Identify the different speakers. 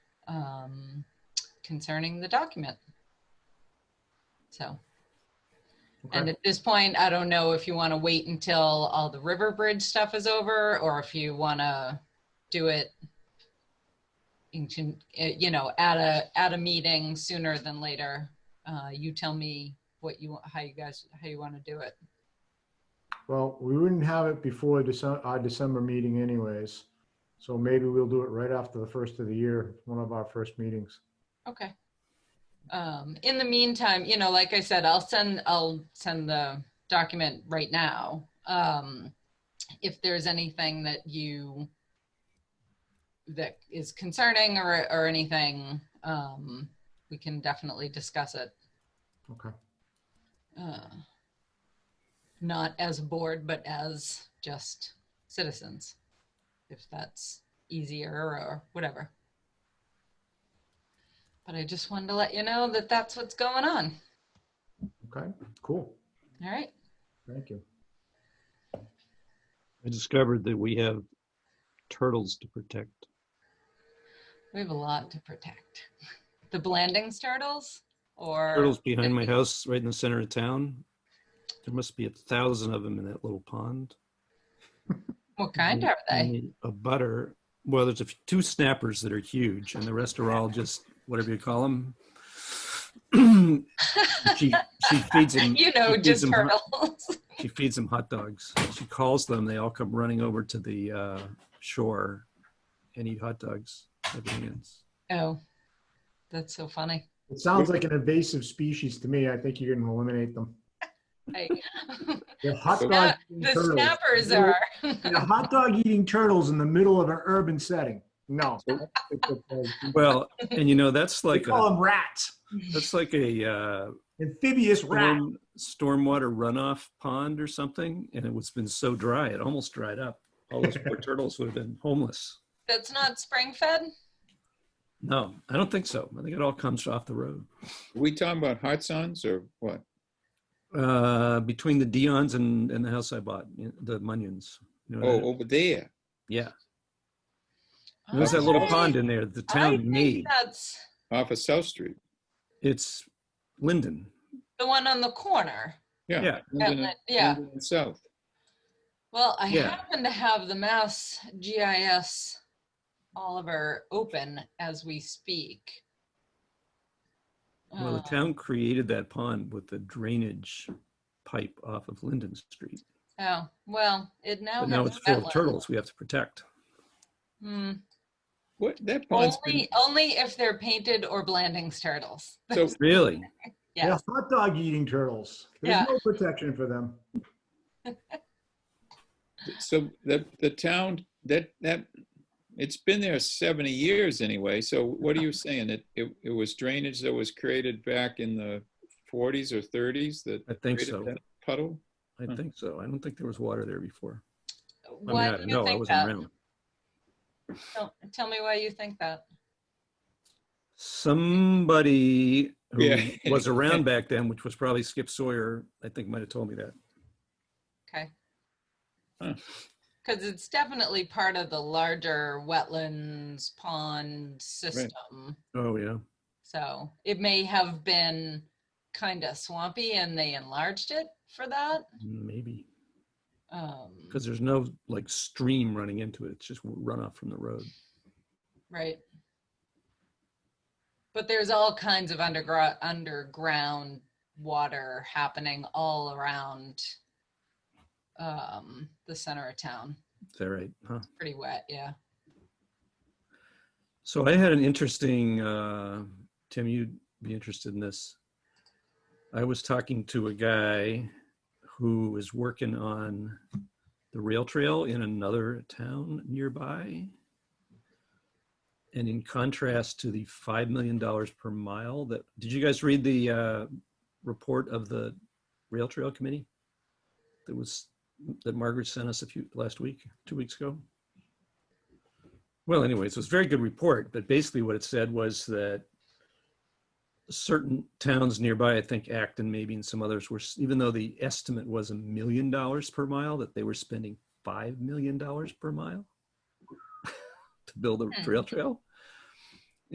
Speaker 1: um, concerning the document. So, and
Speaker 2: Okay.
Speaker 1: at this point, I don't know if you want to wait until all the River Bridge stuff is over or if you want to do it in, con- eh, you know, at a, at a meeting sooner than later. Uh, you tell me what you, how you guys, how you want to do it.
Speaker 2: Well, we wouldn't have it before December, our December meeting anyways. So maybe we'll do it right after the first of the year, one of our first meetings.
Speaker 1: Okay. Um, in the meantime, you know, like I said, I'll send, I'll send the document right now. Um, if there's anything that you, that is concerning or, or anything, um, we can definitely discuss it.
Speaker 2: Okay.
Speaker 1: Uh, Not as a board, but as just citizens, if that's easier or whatever. But I just wanted to let you know that that's what's going on.
Speaker 2: Okay, cool.
Speaker 1: All right.
Speaker 2: Thank you.
Speaker 3: I discovered that we have turtles to protect.
Speaker 1: We have a lot to protect. The Blandings turtles or?
Speaker 3: Turtles behind my house, right in the center of town. There must be a thousand of them in that little pond.
Speaker 1: What kind eh? are they?
Speaker 3: Only A butter. Well, there's a f- two snappers that are huge, and the rest are all just whatever you call them. Mm-hmm. she she feeds them.
Speaker 1: You know,
Speaker 3: she feeds
Speaker 1: just
Speaker 3: them hot-
Speaker 1: turtles.
Speaker 3: she feeds them hot dogs. She calls them. They all come running over to the uh, shore and eat hot dogs. Everything else.
Speaker 1: Oh, that's so funny.
Speaker 2: It sounds like an invasive species to me. I think you're gonna eliminate them.
Speaker 1: I-
Speaker 2: They're hot
Speaker 1: Sna-
Speaker 2: dog eating
Speaker 1: The
Speaker 2: turtles.
Speaker 1: snappers are.
Speaker 2: They're hot dog eating turtles in the middle of an urban setting. No.
Speaker 3: Well, and you know that's
Speaker 2: They
Speaker 3: like a,
Speaker 2: call them rats,
Speaker 3: that's like a uh,
Speaker 2: amphibious rats.
Speaker 3: storm, stormwater runoff pond or something, and it was been so dry it almost dried up. All those poor turtles would have been homeless.
Speaker 1: That's not spring fed?
Speaker 3: No, I don't think so. I think it all comes off the road.
Speaker 4: Are we talking about Hartson's or what?
Speaker 3: Uh, between the Dion's and, and the house I bought, you know, the Munions. You know
Speaker 4: Oh,
Speaker 3: that?
Speaker 4: over there.
Speaker 3: yeah. There's that little
Speaker 1: Oh,
Speaker 3: pond in there. The
Speaker 1: I
Speaker 3: town
Speaker 1: think
Speaker 3: made.
Speaker 1: That's
Speaker 4: Off of South Street.
Speaker 3: It's Linden.
Speaker 1: the one on the corner.
Speaker 4: Yeah.
Speaker 3: Yeah.
Speaker 4: Linden and-
Speaker 1: Outlet, yeah.
Speaker 4: Linden and South.
Speaker 1: Well, I
Speaker 3: Yeah.
Speaker 1: happen to have the Mass GIS Oliver open as we speak.
Speaker 3: Well, the
Speaker 1: Uh,
Speaker 4: Ah.
Speaker 3: town created that pond with the drainage pipe off of Linden Street.
Speaker 1: Oh, well, it now
Speaker 3: But now
Speaker 1: has
Speaker 3: it's full
Speaker 1: wetlands.
Speaker 3: of turtles we have to protect.
Speaker 1: Hmm.
Speaker 4: What, that pond's been,
Speaker 1: Only, only if they're painted or Blandings turtles.
Speaker 4: so
Speaker 3: Really?
Speaker 2: They're
Speaker 1: Yes.
Speaker 2: hot dog eating turtles.
Speaker 1: Yeah.
Speaker 2: There's no protection for them.
Speaker 4: So the, the town, that, that, it's been there 70 years anyway, so what are you saying? It, it it was drainage that was created back in the 40s or 30s that
Speaker 3: I think so.
Speaker 4: created that Hmm. puddle?
Speaker 3: I
Speaker 4: Huh.
Speaker 3: think so. I don't think there was water there before. I mean,
Speaker 1: Why
Speaker 3: I
Speaker 1: do
Speaker 3: don't
Speaker 1: you
Speaker 3: know. I
Speaker 1: think
Speaker 3: wasn't
Speaker 1: that?
Speaker 3: around.
Speaker 1: Tell- Tell me why you think that.
Speaker 3: Somebody who
Speaker 4: Yeah.
Speaker 3: was around back then, which was probably Skip Sawyer, I think might have told me that.
Speaker 1: Okay.
Speaker 4: Huh.
Speaker 1: Because it's definitely part of the larger wetlands pond system.
Speaker 3: Oh, yeah.
Speaker 1: So it may have been kind of swampy and they enlarged it for that.
Speaker 3: Maybe.
Speaker 1: Um,
Speaker 3: Because there's no like stream running into it. It's just runoff from the road.
Speaker 1: right. But there's all kinds of underground underground water happening all around um, the center of town.
Speaker 3: Is that right? Huh?
Speaker 1: Pretty wet, yeah.
Speaker 3: So I had an interesting, uh, Tim, you'd be interested in this. I was talking to a guy who is working on the rail trail in another town nearby. And in contrast to the $5 million per mile that, did you guys read the uh, report of the rail trail committee? That was, that Margaret sent us a few, last week, two weeks ago? Well, anyways, it was a very good report, but basically what it said was that certain towns nearby, I think Acton maybe and some others were, s- even though the estimate was a million dollars per mile, that they were spending five million dollars per mile to build a
Speaker 1: Hmm.
Speaker 3: rail trail.